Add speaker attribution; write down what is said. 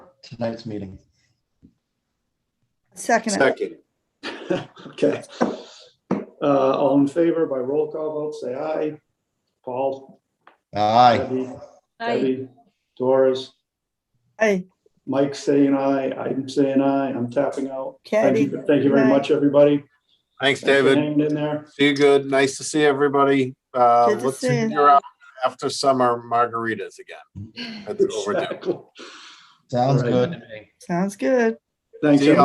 Speaker 1: tonight's meeting.
Speaker 2: Second, it.
Speaker 3: Second,
Speaker 4: Okay. Uh, all in favor by roll call vote, say aye. Paul,
Speaker 1: Aye.
Speaker 4: Debbie,
Speaker 5: Aye.
Speaker 4: Debbie, Doris,
Speaker 2: aye,
Speaker 4: Mike saying aye, I'm saying aye, I'm tapping out. Thank
Speaker 2: Kathy,
Speaker 4: you, thank you very much, everybody.
Speaker 3: thanks,
Speaker 4: Thanks for
Speaker 3: David.
Speaker 4: Hanging in there.
Speaker 3: See you good. Nice to see everybody. Uh,
Speaker 2: Good to
Speaker 3: let's
Speaker 2: see
Speaker 3: figure out after summer margaritas again. That's overdue.
Speaker 4: Exactly.
Speaker 1: Sounds
Speaker 4: Right.
Speaker 1: good to me.
Speaker 2: sounds good.
Speaker 4: Thanks,
Speaker 3: See ya.
Speaker 4: everybody.